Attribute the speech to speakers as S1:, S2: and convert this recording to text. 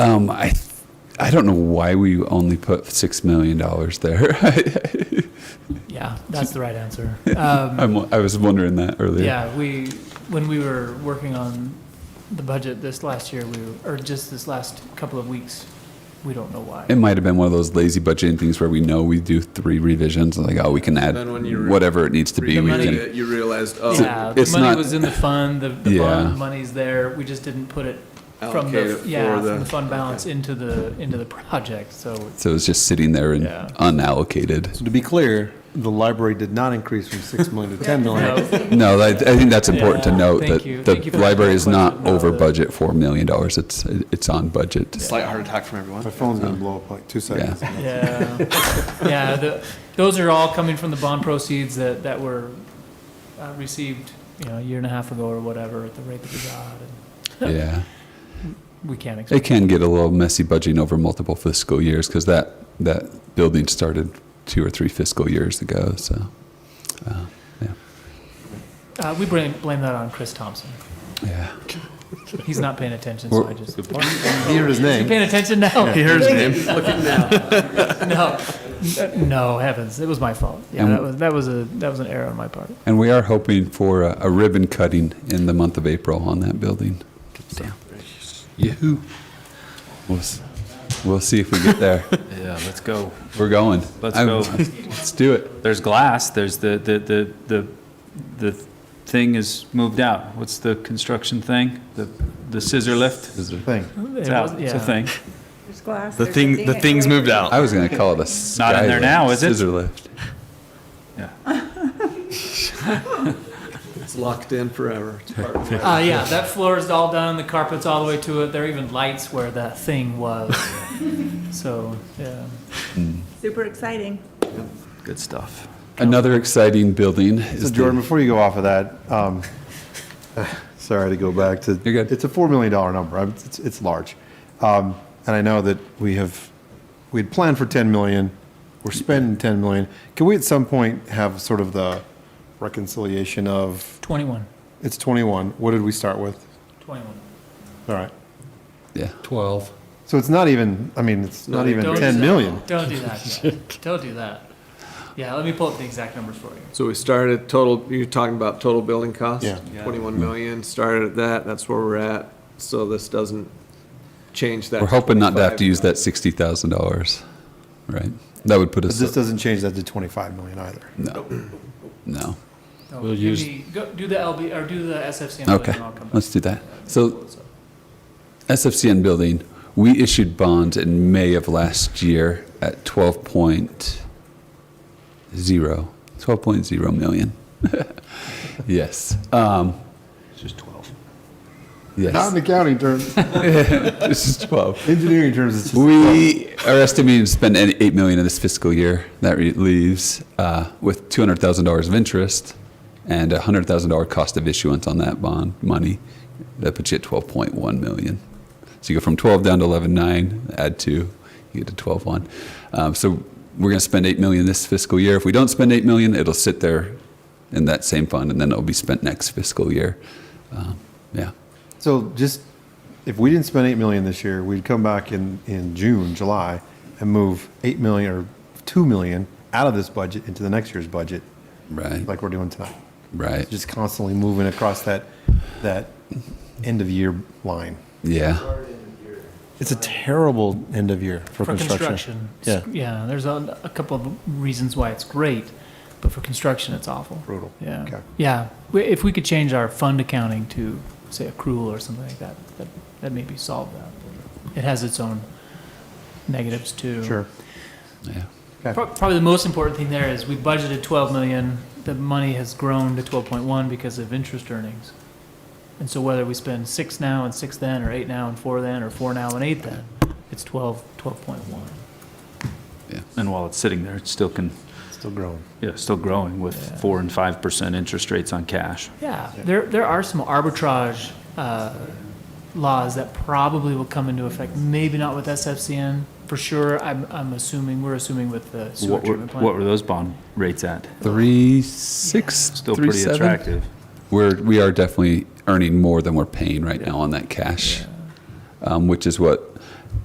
S1: Um, I, th- I don't know why we only put six million dollars there. I,
S2: Yeah, that's the right answer. Um,
S1: I'm, I was wondering that earlier.
S2: yeah, we, when we were working on the budget this last year, we were, or just this last couple of weeks, we don't know why.
S1: It might have been one of those lazy budgeting things where we know we do three revisions and like, oh, we can add
S3: Then when you re-
S1: whatever it needs to be.
S3: The
S1: We
S3: money
S1: can.
S3: that you realized, oh,
S2: Yeah, the
S1: uh, it's
S2: money
S1: not-
S2: was in the fund, the, the
S1: Yeah.
S2: bond money's there, we just didn't put it from
S3: Allocate it
S2: the,
S3: for
S2: yeah,
S3: the-
S2: from the fund balance into the, into the project, so it's,
S1: So it's just sitting there and
S2: Yeah.
S1: unallocated.
S4: So to be clear, the library did not increase from 6 million to 10 million.
S2: no,
S1: No, I, I think that's important
S2: Yeah,
S1: to note
S2: thank
S1: that
S2: you.
S1: the
S2: Thank you for
S1: library
S2: that
S1: is not
S2: question. No,
S1: over
S2: the-
S1: budget for a million dollars. It's it's on budget.
S3: slight heart attack from everyone.
S4: My phone's going to blow up like two seconds.
S2: yeah. Yeah, the, those are all coming from the bond proceeds that, that were uh, received, you know, a year and a half ago or whatever, at the rate that we got, and
S1: Yeah,
S2: we can't expect.
S1: it can get a little messy budgeting over multiple fiscal years because that that building started two or three fiscal years ago. So uh,
S2: Uh, we blame, blame that on Chris Thompson.
S1: yeah,
S2: He's not paying attention, so I just.
S4: He heard his
S2: You
S4: name.
S2: paying attention now?
S3: Here's name.
S2: No, no heavens, it was my fault. Yeah,
S1: And-
S2: that was that was a that was an error on my part.
S1: and we are hoping for a, a ribbon cutting in the month of April on that building. So, Yahoo! We'll, s- we'll see if we get there.
S5: Yeah, let's go.
S1: We're going.
S5: Let's
S1: I'm-
S5: go.
S1: Let's do it.
S5: There's glass, there's the, the, the, the, the thing is moved out. What's the construction thing? The, the scissor lift?
S4: Thing.
S5: It's
S2: It
S5: out,
S2: was-
S5: it's a
S2: yeah.
S5: thing.
S6: There's glass.
S3: The
S6: there's a
S3: thing,
S6: thing
S3: the
S6: at
S3: thing's
S6: Quaker.
S3: moved out.
S1: I was going to call it a
S5: not in there
S1: sky
S5: now,
S1: lift,
S5: is it?
S1: Scissor lift.
S3: It's locked in forever. It's part of
S2: Uh, yeah, that floor is all done. The carpet's all the way to it. There are even lights where that thing was. so yeah,
S6: Super exciting.
S5: Good stuff.
S1: Another exciting building
S4: So
S1: is the-
S4: Jordan, before you go off of that, um, sorry to go back to.
S1: You're good.
S4: It's a $4 million number. I'm- It's, it's large. Um, And I know that we have, we had planned for 10 million. We're spending 10 million. Can we at some point have sort of the reconciliation of,
S2: twenty-one.
S4: it's 21, what did we start with?
S2: 21.
S4: All right.
S1: yeah.
S7: 12.
S4: So it's not even, I mean, it's not even
S2: Don't do
S4: 10
S2: that.
S4: million.
S2: Don't do that. yeah. Don't do that. Yeah, let me pull up the exact numbers for you.
S3: So we started total, you're talking about total building cost?
S4: Yeah.
S3: Twenty-one million, started at that, that's where we're at, so this doesn't change that.
S1: We're hoping not to have to
S3: 25.
S1: use that sixty thousand dollars, right? That would put
S4: But
S1: us
S4: this doesn't change that to 25 million either.
S1: no, no.
S2: No,
S7: We'll
S2: give
S7: use-
S2: me- go, do the LB or do the SFCM. and
S1: Okay,
S2: then I'll come back.
S1: let's do that. So SFCN building, we issued bonds in May of last year at 12.0, 12.0 million. yes. Um, it's just 12.
S4: Not
S1: Yes.
S4: in accounting terms,
S1: this is 12.
S4: engineering terms, it's just,
S1: We are estimating to spend an- eight million in this fiscal year. That re- leaves uh, with two hundred thousand dollars of interest and a hundred thousand dollar cost of issuance on that bond money. That puts you at twelve point one million. So you go from twelve down to eleven nine. Add two, you get to twelve one. Um, so we're going to spend eight million this fiscal year. If we don't spend eight million, it'll sit there in that same fund, and then it'll be spent next fiscal year. Um, yeah.
S4: so just, if we didn't spend 8 million this year, we'd come back in, in June, July, and move 8 million or 2 million out of this budget into the next year's budget,
S1: Right.
S4: like we're doing tonight.
S1: right.
S4: Just constantly moving across that, that end of year line.
S1: yeah.
S4: It's a terrible end of year for
S2: For
S4: construction.
S2: construction, it's- yeah, there's a, a couple of reasons why it's great, but for construction, it's awful.
S4: Brutal. Okay.
S2: Yeah, yeah. We- If we could change our fund accounting to, say, accrual or something like that, that, that maybe solve that. It has its own negatives too.
S4: Sure.
S1: Yeah.
S2: Pro- Probably the most important thing there is we budgeted twelve million, the money has grown to twelve point one because of interest earnings. And so whether we spend six now and six then, or eight now and four then, or four now and eight then, it's twelve, twelve point one.
S5: And while it's sitting there, it still can,
S4: Still growing.
S5: yeah, still growing with
S2: Yeah.
S5: four and 5% interest rates on cash.
S2: Yeah, there, there are some arbitrage uh, laws that probably will come into effect, maybe not with SFCN, for sure, I'm, I'm assuming, we're assuming with the sewer
S5: What were,
S2: treatment
S5: what were
S2: plant.
S5: those bond rates at?
S1: Three six,
S5: Still
S1: three,
S5: pretty
S1: seven?
S5: attractive.
S1: We're we are definitely earning more than we're paying right now on that cash, um, which is what